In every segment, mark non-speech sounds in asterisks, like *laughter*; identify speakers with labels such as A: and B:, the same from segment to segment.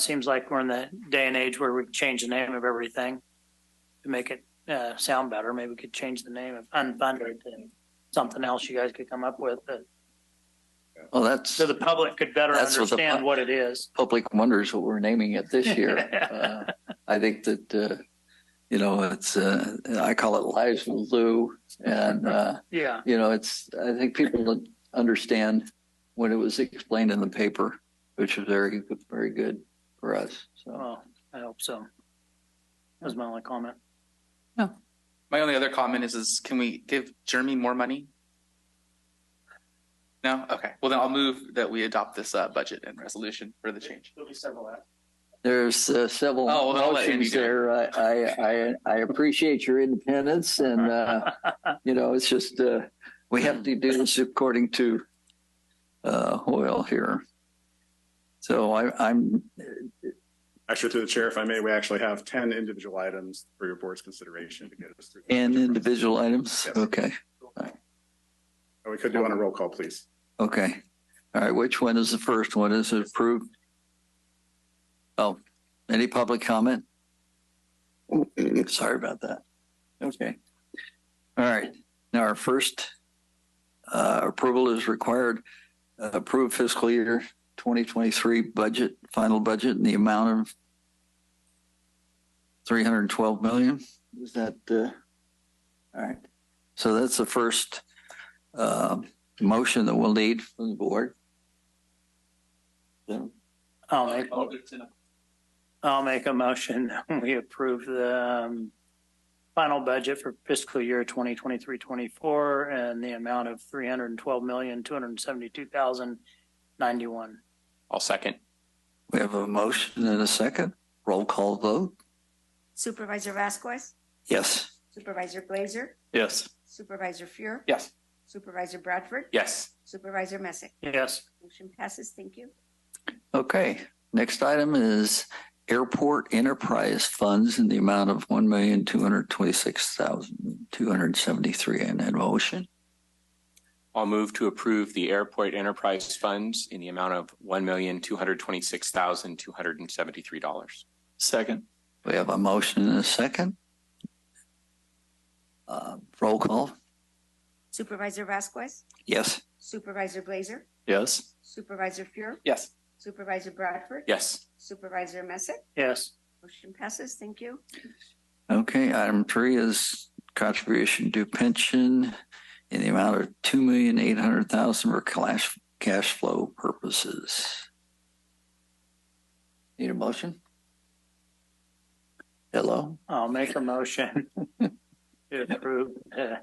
A: Seems like we're in the day and age where we can change the name of everything to make it uh, sound better. Maybe we could change the name of unfunded to something else you guys could come up with that,
B: Well, that's
A: so the public could better
B: That's what the pub-
A: understand what it is.
B: public wonders what we're naming it this year.
A: *laughs*
B: *laughs* uh, I think that uh, you know it's uh, I call it lives will do, and uh,
A: Yeah,
B: you know it's I think people don't understand when it was explained in the paper, which was very very good for us. So
A: well, I hope so. That was my only comment.
C: My only other comment is, is can we give Jeremy more money? No? Okay. Well, then I'll move that we adopt this uh, budget and resolution for the change.
A: There'll be several after.
B: there's uh, several
C: Oh, well, I'll let Andy
B: motions
C: do it.
B: there. I, I I I appreciate your independence, and
C: *laughs*
B: uh, you know it's just uh, we have to do this according to uh, Hoyle here. So I, I'm
D: Actually, through the chair, if I may, we actually have ten individual items for your board's consideration to get us through.
B: And individual items?
D: Yes.
B: Okay,
D: Oh, We could do on a roll call, please.
B: okay. All right, which one is the first one? Is it approved? Oh, any public comment? Sorry about that. Okay. All right, now our first uh, approval is required. Uh, Approve fiscal year 2023 budget, final budget in the amount of 312 million. Is that, uh, all right. So that's the first um, motion that we'll need from the board. So,
A: I'll make, I'll make a motion *laughs* that we approve the um, final budget for fiscal year 2023-24 and the amount of three hundred and twelve million two hundred and seventy-two thousand ninety-one.
C: I'll second.
B: We have a motion and a second. Roll call vote.
E: Supervisor Vasquez,
B: Yes.
E: Supervisor Blazer,
C: Yes.
E: Supervisor Fuhr,
C: Yes.
E: Supervisor Bradford,
C: Yes.
E: Supervisor Messick.
A: Yes,
E: Motion passes. Thank you.
B: Okay. Next item is airport enterprise funds in the amount of one million, two hundred twenty-six thousand, two hundred seventy-three. And a motion.
F: I'll move to approve the airport enterprise funds in the amount of one million, two hundred twenty-six thousand, two hundred and seventy-three dollars.
C: Second.
B: We have a motion and a second. Uh, roll call.
E: Supervisor Vasquez,
B: Yes.
E: Supervisor Blazer,
C: Yes.
E: Supervisor Fuhr,
C: Yes.
E: Supervisor Bradford,
F: Yes,
E: Supervisor Messick.
A: yes,
E: Motion passes. Thank you.
B: Okay, item three is contribution to pension in the amount of two million eight hundred thousand for cash, cash flow purposes. Need a motion? Hello?
A: I'll make a motion to approve the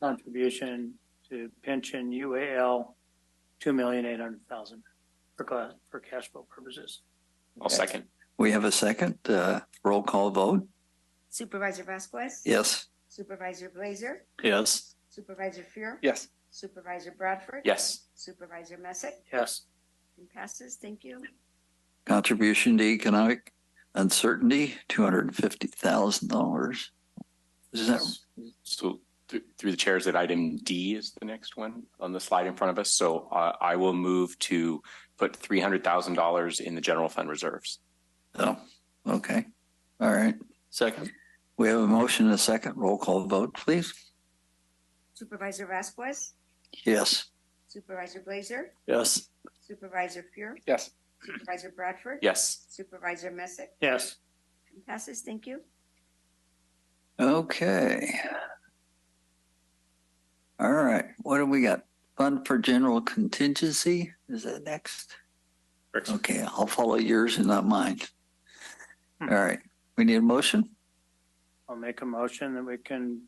A: contribution to pension UAL two million eight hundred thousand for class, for cash flow purposes.
F: I'll second.
B: We have a second, uh, roll call vote?
E: Supervisor Vasquez,
B: Yes.
E: Supervisor Blazer,
C: Yes.
E: Supervisor Fuhr,
C: Yes.
E: Supervisor Bradford,
F: Yes,
E: Supervisor Messick.
A: Yes,
E: Motion passes. Thank you.
B: Contribution to economic uncertainty, two hundred and fifty thousand dollars. Is that,
F: so th- through the chairs that item D is the next one on the slide in front of us. So uh, I will move to put three hundred thousand dollars in the general fund reserves.
B: oh, okay, all right.
C: Second.
B: We have a motion and a second, roll call vote, please?
E: Supervisor Vasquez,
B: Yes.
E: Supervisor Blazer,
C: Yes.
E: Supervisor Fuhr,
C: Yes.
E: Supervisor Bradford,
F: Yes,
E: Supervisor Messick.
A: yes,
E: Motion Passes, thank you.
B: Okay. All right, what do we got? Fund for general contingency, is that next?
D: Correct.
B: Okay, I'll follow yours and not mine. All right, we need a motion?
A: I'll make a motion that we can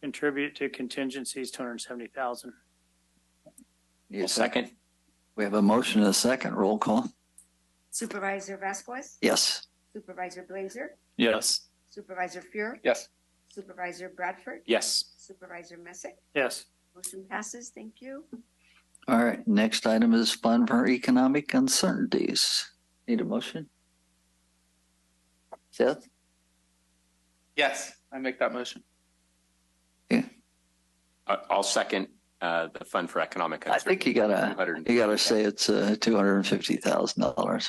A: contribute to contingencies two hundred and seventy thousand.
B: Need a
F: I'll second.
B: We have a motion and a second, roll call.
E: Supervisor Vasquez,
B: Yes,
E: Supervisor Blazer,
C: Yes.
E: Supervisor Fuhr,
C: Yes.
E: Supervisor Bradford,
F: Yes,
E: Supervisor Messick.
A: Yes,
E: Motion passes, thank you.
B: all right, next item is fund for economic uncertainties. Need a motion? Seth,
C: Yes. I make that motion.
F: I- I'll second uh, the fund for economic.
B: I think you gotta,
F: Uncertainty.
B: you gotta say it's, uh, two hundred and fifty thousand dollars.